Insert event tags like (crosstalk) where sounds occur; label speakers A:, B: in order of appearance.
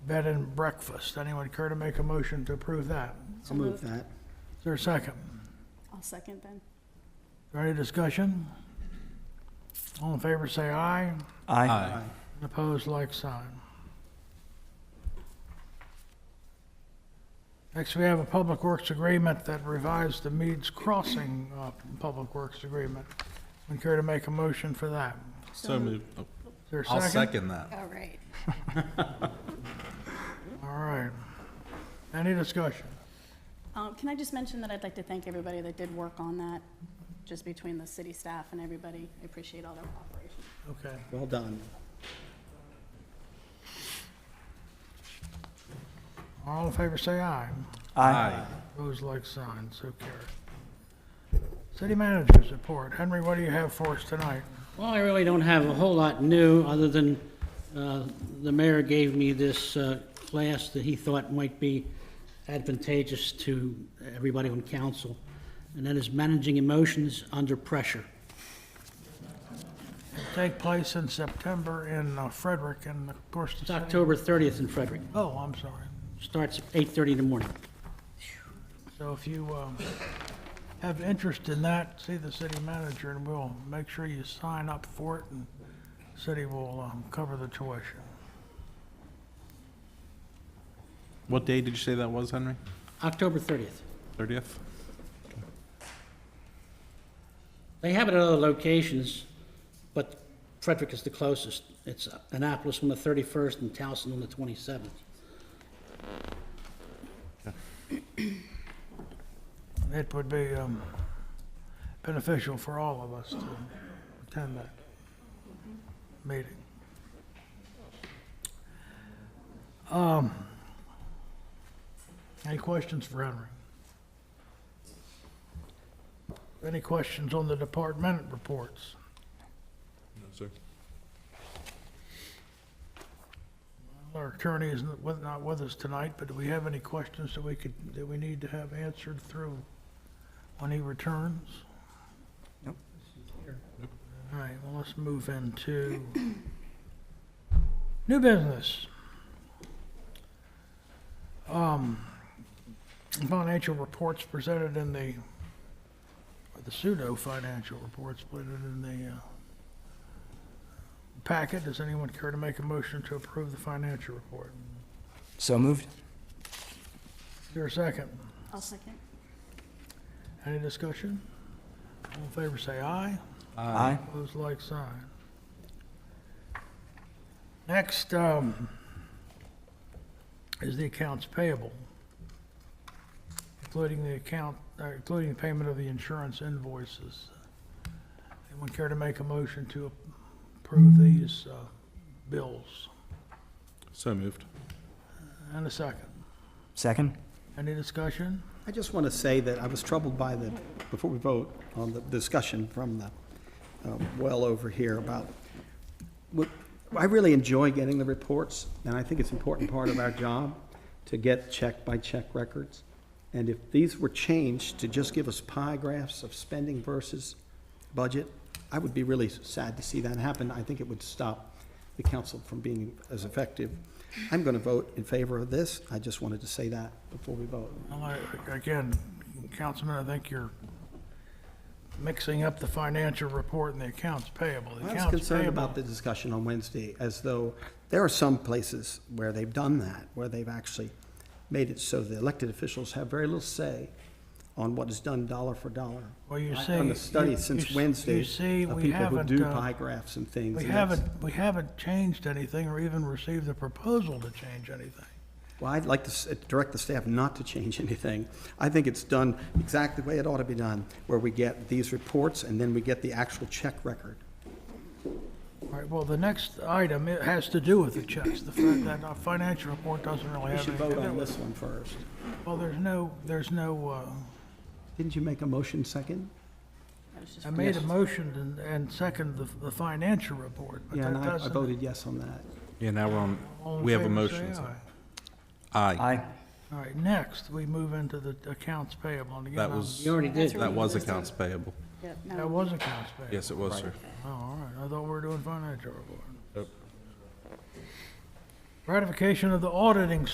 A: bed and breakfast. Anyone care to make a motion to approve that?
B: I'll move that.
A: Is there a second?
C: I'll second then.
A: Is there Any discussion? All in favor, say aye.
D: Aye.
A: Opposed, like sign. Next, we have a Public Works Agreement that revives the Meads Crossing uh, Public Works Agreement. Would care to make a motion for that?
D: So moved. Oh,
A: Is there a
D: I'll second that.
C: All right.
A: All right. Any discussion?
C: Um, Can I just mention that I'd like to thank everybody that did work on that, just between the city staff and everybody. I appreciate all their cooperation.
A: Okay.
B: Well done.
A: All in favor, say aye.
D: Aye.
A: Opposed, like sign. So carried. City Manager's Report. Henry, what do you have for us tonight?
E: Well, I really don't have a whole lot new, other than uh, the mayor gave me this uh, class that he thought might be advantageous to everybody on council, and that is managing emotions under pressure.
A: Take place in September in uh, Frederick and of course the
E: It's
A: city.
E: October 30th in Frederick.
A: Oh, I'm sorry.
E: Starts at 8:30 in the morning.
A: So if you um, have interest in that, see the city manager and we'll make sure you sign up for it and city will um, cover the tuition.
D: What day did you say that was, Henry?
E: October 30th.
D: 30th?
E: They have it at other locations, but Frederick is the closest. It's Annapolis on the 31st and Towson on the 27th.
A: It would be um, beneficial for all of us to attend that meeting. Um, Any questions for Henry? Any questions on the department reports?
D: No, sir.
A: Our attorney is not with- not with us tonight, but do we have any questions that we could, that we need to have answered through when he returns?
B: Nope.
A: All right, well, let's move into (coughs) new business. Um, Financial reports presented in the, or the pseudo-financial reports presented in the uh, packet. Does anyone care to make a motion to approve the financial report?
F: So moved.
A: Is there a second?
C: I'll second.
A: Any discussion? All in favor, say aye.
F: Aye.
A: Opposed, like sign. Next um, is the accounts payable, including the account, uh, including the payment of the insurance invoices. Anyone care to make a motion to approve these uh, bills?
D: So moved.
A: And a second.
F: Second.
A: Any discussion?
B: I just want to say that I was troubled by the, before we vote, on the discussion from the uh, well over here about, what- I really enjoy getting the reports, and I think it's an important part of our job to get check-by-check records. And if these were changed to just give us pie graphs of spending versus budget, I would be really sad to see that happen. I think it would stop the council from being as effective. I'm going to vote in favor of this. I just wanted to say that before we vote.
A: Well, I- Again, Councilman, I think you're mixing up the financial report and the accounts payable. The
B: I was
A: accounts
B: concerned
A: payable-
B: about the discussion on Wednesday, as though there are some places where they've done that, where they've actually made it so the elected officials have very little say on what is done dollar for dollar.
A: Well, you
B: I-
A: see,
B: From the
A: you-
B: study
A: you
B: since
A: s-
B: Wednesday,
A: you see,
B: of
A: we
B: people who
A: haven't,
B: do
A: uh,
B: pie graphs and things.
A: We
B: and that's-
A: haven't, we haven't changed anything or even received a proposal to change anything.
B: Well, I'd like to s- uh, direct the staff not to change (laughs) anything. I think it's done exactly the way it ought to be done, where we get these reports and then we get the actual check record.
A: All right, well, the next item, it has to do with the checks. The fact that our financial report doesn't really
B: We
A: have
B: should
A: anything
B: vote
A: to do
B: on
A: with
B: this one first.
A: it. Well, there's no, there's no, uh,
B: Didn't you make a motion second?
C: That was just
A: I made a motion and- and second the the financial report, but
B: Yeah,
A: that
B: and I- I
A: doesn't-
B: voted yes on that.
D: Yeah, now we're on,
A: All in
D: we have a
A: favor, say
D: motion. so-
A: aye.
D: Aye.
F: Aye.
A: All right, next, we move into the accounts payable. And again,
D: That
A: I'm-
D: was,
E: You already did.
D: that was accounts payable.
C: Yep,
A: That
C: no,
A: was accounts payable.
D: Yes, it was, sir.
A: Oh, all right, I thought we were doing financial report.
D: Nope.
A: Ratification of the auditing